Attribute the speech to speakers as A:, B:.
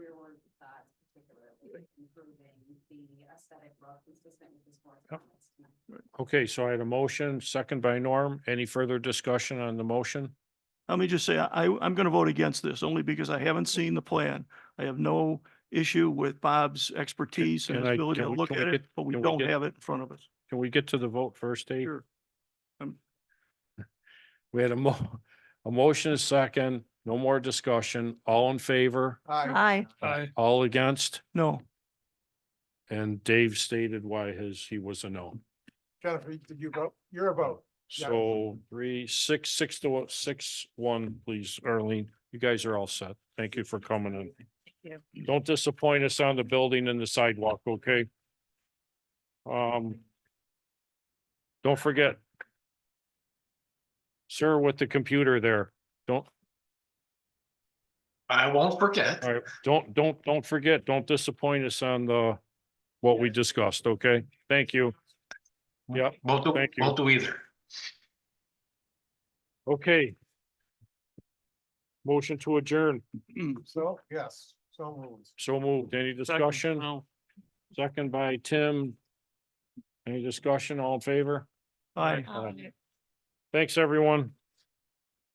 A: really improving the aesthetic look consistent with this board's
B: Yep.
A: comments tonight.
B: Okay, so I had a motion, second by Norm. Any further discussion on the motion?
C: Let me just say, I, I- I'm going to vote against this only because I haven't seen the plan. I have no issue with Bob's expertise and
B: can
C: his
B: I-
C: ability
B: can
C: to
B: we-
C: look
B: can we
C: at it,
B: get-
C: but we
B: can we
C: don't
B: get-
C: have it in front of us.
B: Can we get to the vote first, Dave?
C: Sure.
B: We had a mo- a motion, a second, no more discussion. All in favor?
D: Aye.
B: Aye. All against?
C: No,
B: And Dave stated why his, he was a no.
E: Jennifer, did you vote? You're a vote. Yeah.
B: So three, six, six to one- six, one, please, Arlene. You guys are all set. Thank you for coming in.
D: Thank
B: Don't disappoint us on the building and the sidewalk, okay? Um. Don't forget. Sir, with the computer there, don't,
F: I won't forget.
B: all right, don't, don't, don't forget, don't disappoint us on the, what we discussed, okay? Thank you. Yep.
F: Won't do,
B: Thank you.
F: won't do either.
B: Okay. Motion to adjourn.
E: So, yes, so moved.
B: So moved. Any discussion?
C: no.
B: Second by Tim. Any discussion? All in favor?
C: Aye.
B: Thanks, everyone.